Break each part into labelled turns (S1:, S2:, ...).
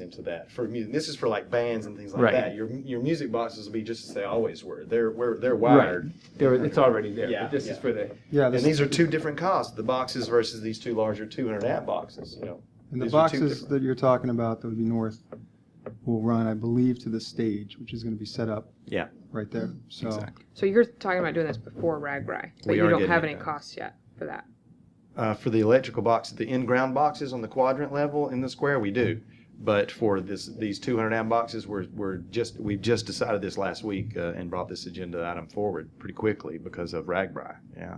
S1: into that for music. This is for like bands and things like
S2: Right.
S1: that. Your your music boxes will be just as they always were. They're where they're wired,
S2: There, it's already there.
S1: Yeah,
S2: but this
S1: yeah.
S2: is for the
S3: Yeah,
S1: and
S3: this,
S1: these are two different costs: the boxes versus these two larger 200 amp boxes. You know,
S3: and the
S1: these are two
S3: boxes
S1: different-
S3: that you're talking about that would be north will run, I believe, to the stage, which is going to be set up.
S4: Yeah.
S3: Right there. So
S4: Exactly.
S5: So you're talking about doing this before Ragbri, but
S4: We
S5: you
S4: are
S5: don't
S4: getting
S5: have
S4: it
S5: any
S4: done.
S5: costs yet for that.
S1: uh, for the electrical box, the in-ground boxes on the quadrant level in the square, we do. But for this, these 200 amp boxes, we're, we're just, we've just decided this last week uh, and brought this agenda item forward pretty quickly because of Ragbri. Yeah,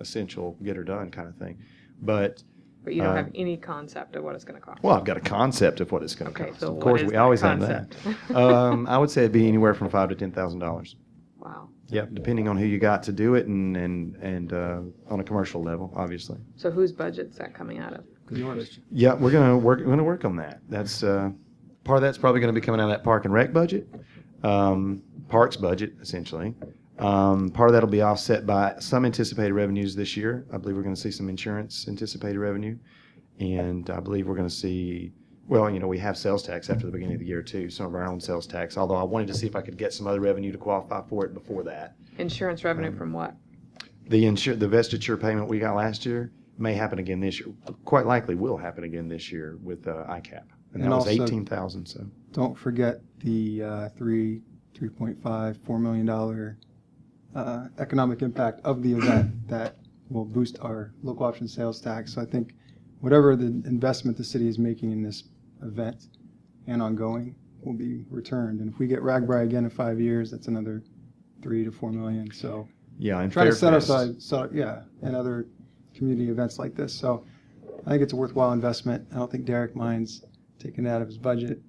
S1: essential, get her done kind of thing. But
S5: But you don't
S1: Uh,
S5: have any concept of what it's going to cost.
S1: well, I've got a concept of what it's going to
S5: Okay,
S1: cost.
S5: so
S1: of
S5: what
S1: course,
S5: is
S1: we
S5: that
S1: always have
S5: concept?
S1: that. um, I would say it'd be anywhere from five to ten thousand dollars.
S5: Wow.
S1: Yep, depending on who you got to do it and and and uh, on a commercial level, obviously.
S5: So whose budget's that coming out of?
S2: good question.
S1: Yeah, we're gonna work. We're gonna work on that. That's uh, part of that's probably gonna be coming out of that park and rec budget, um, parks budget essentially. Um, part of that'll be offset by some anticipated revenues this year. I believe we're gonna see some insurance anticipated revenue, and I believe we're gonna see. Well, you know, we have sales tax after the beginning of the year too. Some of our own sales tax. Although I wanted to see if I could get some other revenue to qualify for it before that.
S5: Insurance
S1: Um,
S5: revenue from what?
S1: The insure, the vestiture payment we got last year may happen again this year. Quite likely will happen again this year with uh, ICAP. And that
S3: And
S1: was
S3: also-
S1: eighteen thousand, so.
S3: don't forget the uh, three, three point five, four million dollar uh, economic impact of the event that will boost our local option sales tax. So I think whatever the investment the city is making in this event and ongoing will be returned. And if we get Ragbri again in five years, that's another three to four million. So
S1: Yeah, and
S3: try to set
S1: Fairfest-
S3: aside, so, yeah, and other community events like this. So I think it's a worthwhile investment. I don't think Derek minds taking it out of his budget.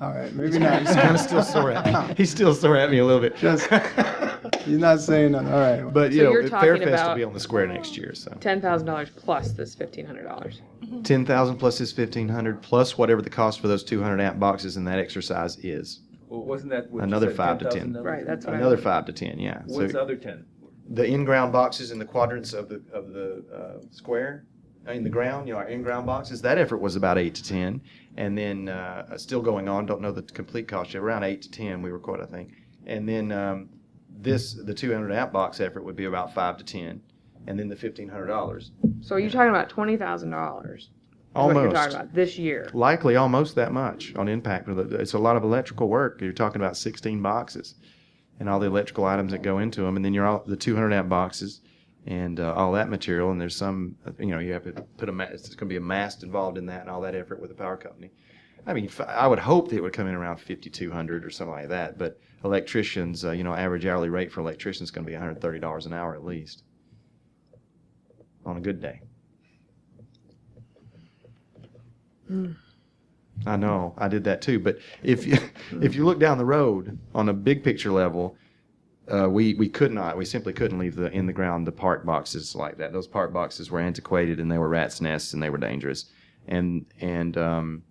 S3: All right, maybe not.
S1: He's kind of still sore at me. He's still sore at me a little bit.
S3: Just- He's not saying nothing. All right.
S1: But, you
S5: So
S1: know,
S5: you're talking
S1: Fairfest will
S5: about- Mm-hmm.
S1: be on the square next year, so.
S5: Ten thousand dollars plus this fifteen hundred dollars.
S1: Ten thousand plus his fifteen hundred, plus whatever the cost for those two hundred amp boxes and that exercise is.
S6: Well, wasn't that what you
S1: Another
S6: said,
S1: five to 10.
S6: 10,000?
S5: Right, that's what I
S1: Another
S5: thought.
S1: five to ten, yeah. So
S6: What's the other ten?
S1: The in-ground boxes in the quadrants of the, of the uh, square, in the ground, you know, our in-ground boxes, that effort was about eight to 10. And then, uh, still going on, don't know the complete cost, yet, around eight to 10 we were quoted, I think. And then um, this, the 200 amp box effort would be about five to 10. And then the $1,500.
S5: So you're talking about twenty thousand dollars. What you're talking
S1: Almost,
S5: about this year.
S1: likely almost that much on impact. With it. It's a lot of electrical work. You're talking about 16 boxes and all the electrical items that go into them. And then you're all the 200 amp boxes and uh, all that material. And there's some, uh, you know, you have to put a, ma- it's going to be a mast involved in that and all that effort with the power company. I mean, f- I would hope that it would come in around 5,200 or something like that. But electricians, uh, you know, average hourly rate for electricians is going to be $130 an hour at least on a good day. I know I did that too. But if you if you look down the road on a big picture level, uh, we we could not, we simply couldn't leave the in the ground the park boxes like that. Those park boxes were antiquated and they were rats' nests and they were dangerous. And and um,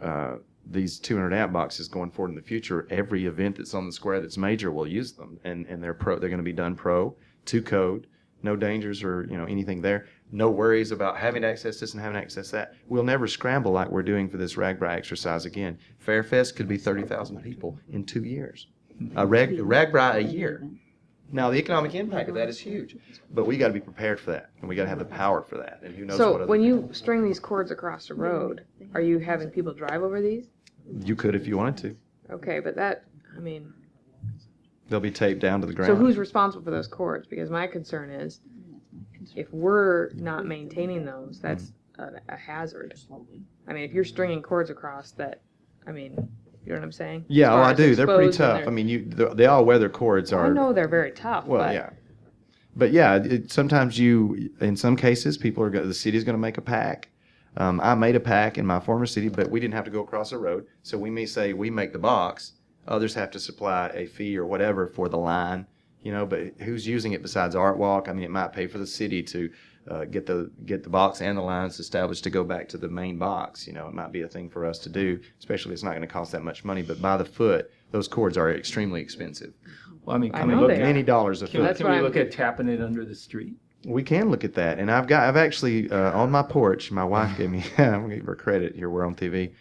S1: uh, these 200 amp boxes going forward in the future, every event that's on the square that's major will use them, and and they're pro. They're going to be done pro to code. No dangers or you know anything there. No worries about having to access this and having to access that. We'll never scramble like we're doing for this Ragbri exercise again. Fairfest could be 30,000 people in two years. A rag, Ragbri a year. Now the economic impact of that is huge, but we got to be prepared for that, and we got to have the power for that. And who knows what?
S5: So
S1: other
S5: when
S1: people-
S5: you string these cords across the road, are you having people drive over these?
S1: you could if you wanted to,
S5: Okay, but that, I mean,
S1: they'll be taped down to the ground.
S5: so who's responsible for those cords? Because my concern is, if we're not maintaining those, that's a, a hazard. I mean, if you're stringing cords across that, I mean, you know what I'm saying? As
S1: Yeah,
S5: far
S1: well, I
S5: as
S1: do. They're pretty
S5: exposed and
S1: tough.
S5: they're-
S1: I mean, you the, the all weather cords
S5: I
S1: are.
S5: know they're very tough,
S1: Well,
S5: but
S1: yeah, but yeah, it, sometimes you, in some cases, people are going. The city's going to make a pack. Um, I made a pack in my former city, but we didn't have to go across a road. So we may say we make the box. Others have to supply a fee or whatever for the line, you know. But who's using it besides Art Walk? I mean, it might pay for the city to uh, get the get the box and the lines established to go back to the main box. You know, it might be a thing for us to do, especially if it's not going to cost that much money. But by the foot, those cords are extremely expensive.
S2: Well, I mean,
S5: I
S2: can
S5: know
S2: we look,
S5: they are.
S1: Many dollars a
S2: can,
S1: foot.
S5: That's
S2: can
S5: what
S2: we
S5: I'm-
S2: look at tapping it under the street?
S1: We can look at that, and I've got I've actually uh, on my porch. My wife gave me I'm gonna give her credit here. We're on TV.